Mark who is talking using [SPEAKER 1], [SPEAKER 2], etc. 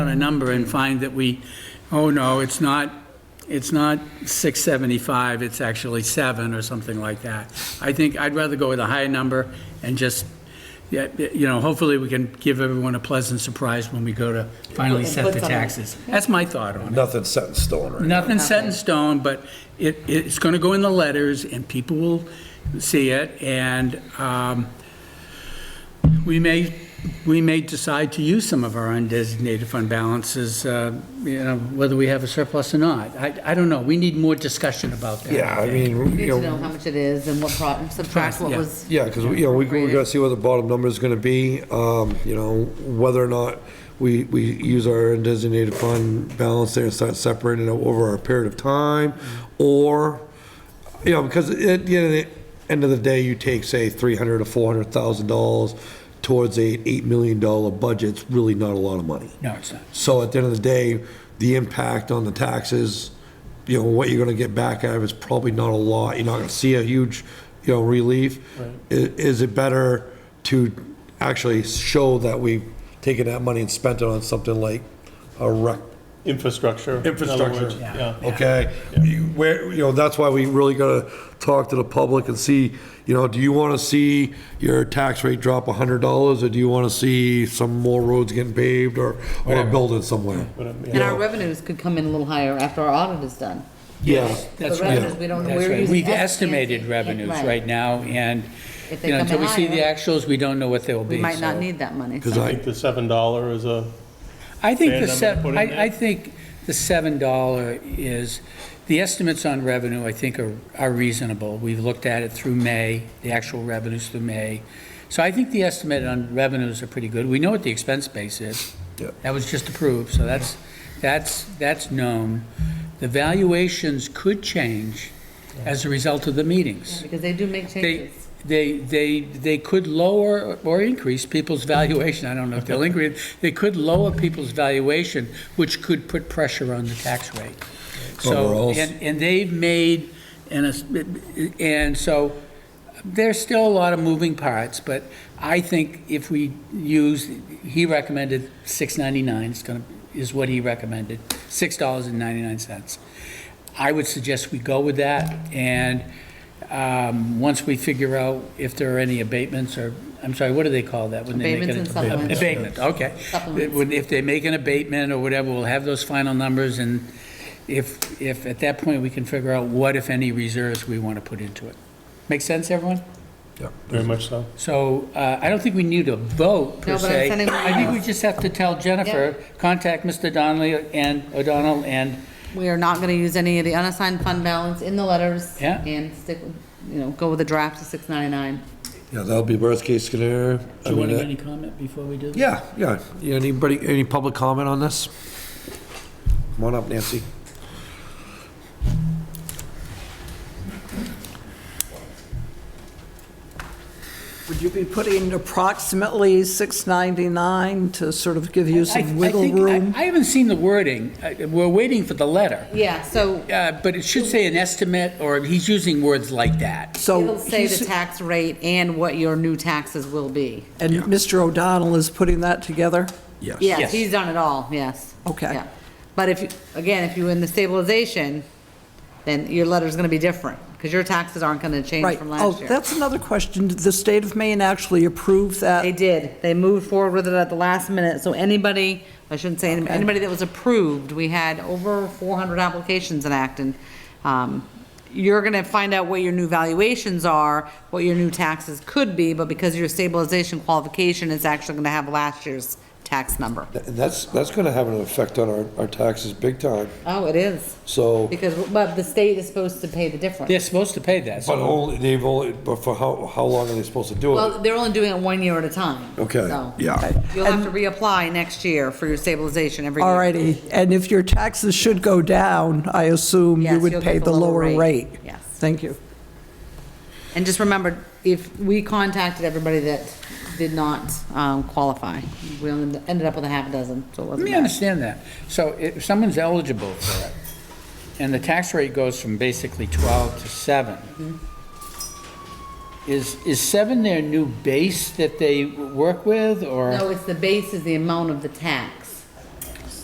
[SPEAKER 1] on a number and find that we, oh no, it's not, it's not 675, it's actually 7 or something like that. I think I'd rather go with a higher number and just, yeah, you know, hopefully we can give everyone a pleasant surprise when we go to finally
[SPEAKER 2] And
[SPEAKER 1] set
[SPEAKER 2] put
[SPEAKER 1] the
[SPEAKER 2] something-
[SPEAKER 1] taxes. That's my thought on it.
[SPEAKER 3] Nothing's set in stone, right?
[SPEAKER 1] Nothing's set in stone, but it, it's going to go in the letters, and people will see it, and um, we may, we may decide to use some of our undesignated fund balances, uh, you know, whether we have a surplus or not. I, I don't know, we need more discussion about that.
[SPEAKER 3] Yeah, I mean,
[SPEAKER 2] We
[SPEAKER 3] you
[SPEAKER 2] need to know
[SPEAKER 3] know,
[SPEAKER 2] how much it is and what pro, and subtract what
[SPEAKER 1] Yeah.
[SPEAKER 2] was.
[SPEAKER 3] yeah, because, you know, we, we gotta see what the bottom number is gonna be, um, you know, whether or not we, we use our designated fund balance there and start separating it over a period of time, or, you know, because at the end of the, end of the day, you take, say, three hundred to four hundred thousand dollars towards a eight million dollar budget, it's really not a lot of money.
[SPEAKER 1] No, it's not.
[SPEAKER 3] So at the end of the day, the impact on the taxes, you know, what you're gonna get back out of is probably not a lot. You're not gonna see a huge, you know, relief. I- Is it better to actually show that we've taken that money and spent it on something like a rec?
[SPEAKER 4] Infrastructure. in other
[SPEAKER 3] Infrastructure.
[SPEAKER 4] words, Yeah.
[SPEAKER 3] Okay, You- where, you know, that's why we really gotta talk to the public and see, you know, do you wanna see your tax rate drop a hundred dollars? Or do you wanna see some more roads getting paved or, or a building somewhere?
[SPEAKER 4] um,
[SPEAKER 2] And our revenues could come in a little higher after our audit is done.
[SPEAKER 3] Yeah.
[SPEAKER 1] That's
[SPEAKER 2] The
[SPEAKER 1] right.
[SPEAKER 2] revenues, we don't know
[SPEAKER 1] That's
[SPEAKER 2] where
[SPEAKER 1] right.
[SPEAKER 2] you-
[SPEAKER 1] We've
[SPEAKER 2] Yes,
[SPEAKER 1] estimated
[SPEAKER 2] yes,
[SPEAKER 1] revenues
[SPEAKER 2] right.
[SPEAKER 1] right now, and,
[SPEAKER 2] If they
[SPEAKER 1] you know,
[SPEAKER 2] come
[SPEAKER 1] until
[SPEAKER 2] in
[SPEAKER 1] we see the
[SPEAKER 2] higher,
[SPEAKER 1] actuals, we don't know what they'll be.
[SPEAKER 2] We might not
[SPEAKER 1] so-
[SPEAKER 2] need that money.
[SPEAKER 3] Because
[SPEAKER 2] so-
[SPEAKER 4] I think the seven dollar is a,
[SPEAKER 1] I think the
[SPEAKER 4] Fair number to
[SPEAKER 1] seven,
[SPEAKER 4] put in
[SPEAKER 1] I, I
[SPEAKER 4] there?
[SPEAKER 1] think the seven dollar is, the estimates on revenue, I think, are, are reasonable. We've looked at it through May, the actual revenues through May. So I think the estimate on revenues are pretty good. We know what the expense base is.
[SPEAKER 3] Yep.
[SPEAKER 1] That was just approved, so that's, that's, that's known. The valuations could change as a result of the meetings.
[SPEAKER 2] Because they do make
[SPEAKER 1] They,
[SPEAKER 2] changes.
[SPEAKER 1] they, they, they could lower or increase people's valuation, I don't know if they'll increase, they could lower people's valuation, which could put pressure on the tax rate. So,
[SPEAKER 3] Overall.
[SPEAKER 1] and, and they've made, and, it's- and so, there's still a lot of moving parts, but I think if we use, he recommended six ninety-nine, it's gonna, is what he recommended, six dollars and ninety-nine cents. I would suggest we go with that, and, um, once we figure out if there are any abatements or, I'm sorry, what do they call that? when they make an-
[SPEAKER 2] Abatements and supplements.
[SPEAKER 1] Abatement, okay.
[SPEAKER 2] Supplements.
[SPEAKER 1] When- If they make an abatement or whatever, we'll have those final numbers, and if, if, at that point, we can figure out what, if any, reserves we want to put into it. Make sense, everyone?
[SPEAKER 4] very much so.
[SPEAKER 1] So uh, I don't think we need a vote, per
[SPEAKER 2] No, but I'm
[SPEAKER 1] se.
[SPEAKER 2] sending my
[SPEAKER 1] I think we
[SPEAKER 2] emails.
[SPEAKER 1] just have to tell Jennifer, contact Mr. Donnelly and O'Donnell, and
[SPEAKER 2] We are not gonna use any of the unassigned fund balance in the letters.
[SPEAKER 1] Yeah.
[SPEAKER 2] And stick, with- you know, go with a draft to six ninety-nine.
[SPEAKER 3] Yeah, that'll be worst case scenario. I
[SPEAKER 1] do you
[SPEAKER 3] mean,
[SPEAKER 1] want to
[SPEAKER 3] that-
[SPEAKER 1] make any comment before we do?
[SPEAKER 3] Yeah, yeah. Yeah, Anybody, any public comment on this? Come on up, Nancy.
[SPEAKER 5] Would you be putting approximately 699 to sort of give you
[SPEAKER 1] I- I
[SPEAKER 5] some wiggle
[SPEAKER 1] think- I-
[SPEAKER 5] room?
[SPEAKER 1] I haven't seen the wording. I- We're waiting for the letter.
[SPEAKER 2] Yeah, so
[SPEAKER 1] Uh, But it should say an estimate, or he's using words like that.
[SPEAKER 5] So
[SPEAKER 2] it'll say
[SPEAKER 5] he's-
[SPEAKER 2] the tax rate and what your new taxes will be.
[SPEAKER 5] And Mr. O'Donnell is putting that together?
[SPEAKER 1] Yes.
[SPEAKER 2] Yes, he's done it all, yes.
[SPEAKER 5] Okay.
[SPEAKER 2] Yeah. But if, you again, if you're in the stabilization, then your letter's gonna be different, because your taxes aren't gonna change
[SPEAKER 5] Right.
[SPEAKER 2] from
[SPEAKER 5] Oh,
[SPEAKER 2] last year.
[SPEAKER 5] that's another question. Did the state of Maine actually approve
[SPEAKER 2] They
[SPEAKER 5] that?
[SPEAKER 2] did, they moved forward with it at the last minute, so anybody, I shouldn't say anybody, anybody that was approved, we had over four hundred applications in Acton. Um, You're gonna find out what your new valuations are, what your new taxes could be, but because your stabilization qualification is actually gonna have last year's tax number.
[SPEAKER 3] And that's, that's gonna have an effect on our, our taxes big time,
[SPEAKER 2] Oh, it is.
[SPEAKER 3] so.
[SPEAKER 2] Because, but the state is supposed to pay the difference.
[SPEAKER 1] They're supposed to pay that.
[SPEAKER 3] But
[SPEAKER 1] so-
[SPEAKER 3] only, they've only, but for how, how long are they supposed to do it?
[SPEAKER 2] Well, they're only doing it one year at a time.
[SPEAKER 3] Okay,
[SPEAKER 2] So
[SPEAKER 3] yeah.
[SPEAKER 2] You'll have to reapply next year for your stabilization every year.
[SPEAKER 5] All righty. And if your taxes should go down, I assume you
[SPEAKER 2] Yes,
[SPEAKER 5] would
[SPEAKER 2] you'll
[SPEAKER 5] pay
[SPEAKER 2] get
[SPEAKER 5] the lower rate?
[SPEAKER 2] Yes.
[SPEAKER 5] Thank you.
[SPEAKER 2] And just remember, if we contacted everybody that did not um, qualify, we only ended up with a half dozen, so it
[SPEAKER 1] Let
[SPEAKER 2] wasn't
[SPEAKER 1] me
[SPEAKER 2] bad.
[SPEAKER 1] understand that. So if someone's eligible for it, and the tax rate goes from basically 12 to
[SPEAKER 2] Mm-hmm.
[SPEAKER 1] 7, is, is 7 their new base that they work with, or?
[SPEAKER 2] No, it's the base is the amount of the tax.